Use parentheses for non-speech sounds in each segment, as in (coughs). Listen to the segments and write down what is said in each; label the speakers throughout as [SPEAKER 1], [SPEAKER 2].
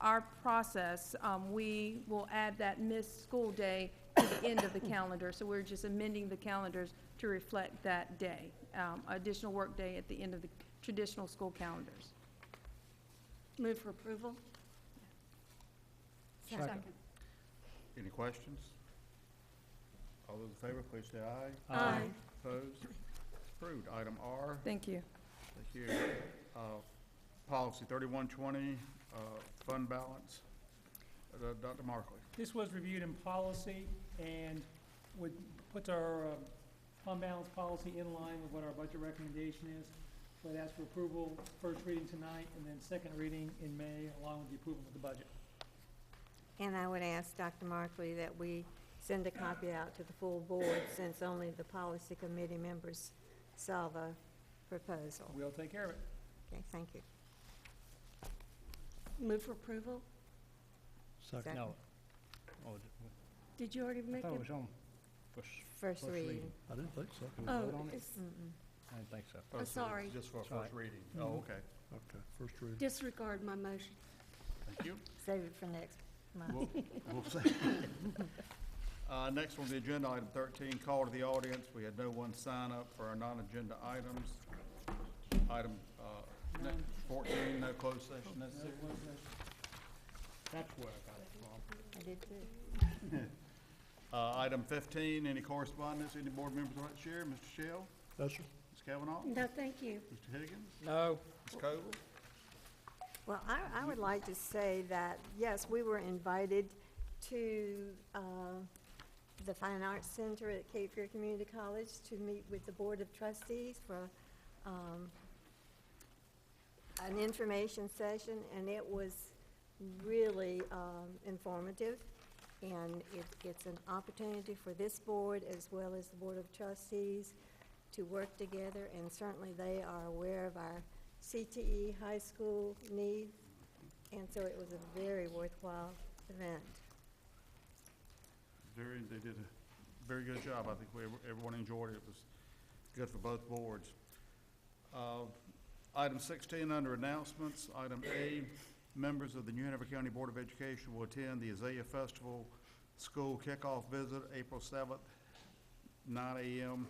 [SPEAKER 1] our process, um, we will add that missed school day to the end of (coughs) the calendar. So we're just amending the calendars to reflect that day, um, additional work day at the end of the traditional school calendars.
[SPEAKER 2] Move for approval?
[SPEAKER 3] Second.
[SPEAKER 4] Any questions? All those in favor, please say aye.
[SPEAKER 5] Uh,
[SPEAKER 2] Aye.
[SPEAKER 4] Opposed? Approved. Item R,
[SPEAKER 1] Thank you.
[SPEAKER 4] thank you. Uh, Policy thirty-one twenty, uh, fund balance. Uh, Dr. Markley.
[SPEAKER 5] This was reviewed in policy and would, puts our um, fund balance policy in line with what our budget recommendation is. Would ask for approval, first reading tonight, and then second reading in May, along with the approval of the budget.
[SPEAKER 3] And I would ask Dr. Markley that we send a copy out to the full board, since only the policy committee members saw the proposal.
[SPEAKER 5] We'll take care of it.
[SPEAKER 3] Okay, thank you.
[SPEAKER 2] Move for approval?
[SPEAKER 3] Second.
[SPEAKER 6] No. Oh, d-
[SPEAKER 2] Did you already
[SPEAKER 6] I
[SPEAKER 2] make
[SPEAKER 6] thought it
[SPEAKER 2] it?
[SPEAKER 6] was on first,
[SPEAKER 3] First
[SPEAKER 4] First
[SPEAKER 3] reading.
[SPEAKER 4] reading.
[SPEAKER 7] I didn't think so.
[SPEAKER 6] can we
[SPEAKER 2] Oh,
[SPEAKER 6] vote on it?
[SPEAKER 2] it's
[SPEAKER 3] Mm-mm.
[SPEAKER 6] I didn't think so.
[SPEAKER 4] Oh,
[SPEAKER 2] Oh,
[SPEAKER 4] so
[SPEAKER 2] sorry.
[SPEAKER 4] Just for a
[SPEAKER 6] It's all
[SPEAKER 4] first reading.
[SPEAKER 5] Mhm.
[SPEAKER 4] Oh, okay.
[SPEAKER 7] Okay, first reading.
[SPEAKER 2] disregard my motion.
[SPEAKER 4] Thank you.
[SPEAKER 3] Save it for next month.
[SPEAKER 4] We'll, we'll see. (laughs) Uh, next on the agenda, item thirteen, call to the audience. We had no one sign up for our non-agenda items. Item, uh, ne- fourteen, no closed session necessary.
[SPEAKER 5] That's where I got it from.
[SPEAKER 3] I did too.
[SPEAKER 4] (laughs) Uh, item fifteen, any correspondence, any board members want to share? Mr. Shell,
[SPEAKER 7] No, sir.
[SPEAKER 4] Ms. Kavanaugh,
[SPEAKER 2] No, thank you.
[SPEAKER 4] Mr. Higgins,
[SPEAKER 6] No.
[SPEAKER 4] Ms. Coble?
[SPEAKER 3] Well, I, I would like to say that, yes, we were invited to uh, the Fine Arts Center at Cape Fear Community College to meet with the Board of Trustees for um, an information session, and it was really um, informative. And it, it's an opportunity for this board as well as the Board of Trustees to work together, and certainly they are aware of our CTE high school needs, and so it was a very worthwhile event.
[SPEAKER 4] Very, they did a very good job. I think we, everyone enjoyed it. It was good for both boards. Uh, Item sixteen, under announcements, item A, members of the New Hanover County Board of Education will attend the Azalea Festival School Kickoff Visit, April seventh, nine AM.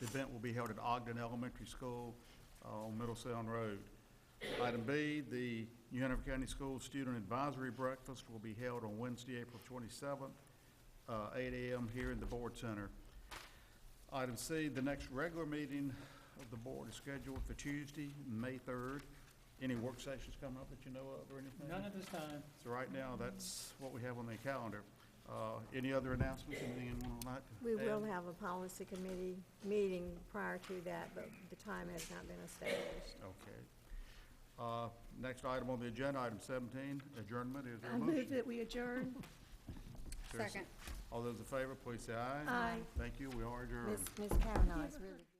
[SPEAKER 4] The event will be held at Ogden Elementary School uh, on Middle Sound Road. Item B, the New Hanover County School Student Advisory Breakfast will be held on Wednesday, April twenty-seventh, uh, eight AM here in the Board Center. Item C, the next regular meeting of the board is scheduled for Tuesday, May third. Any work sessions coming up that you know of or anything?
[SPEAKER 5] None at this time.
[SPEAKER 4] So right now, that's what we have on the calendar. Uh, any other announcements, anything anyone would like to
[SPEAKER 3] We will
[SPEAKER 4] add?
[SPEAKER 3] have a policy committee meeting prior to that, but the time has not been established.
[SPEAKER 4] Okay. Uh, next item on the agenda, item seventeen, adjournment, is there a
[SPEAKER 2] I
[SPEAKER 4] motion?
[SPEAKER 2] move that we adjourn.
[SPEAKER 4] Is there a se- All those in favor, please say aye.
[SPEAKER 2] Aye.
[SPEAKER 4] Thank you, we are adjourned.
[SPEAKER 3] Ms. Ms. Kavanaugh is really.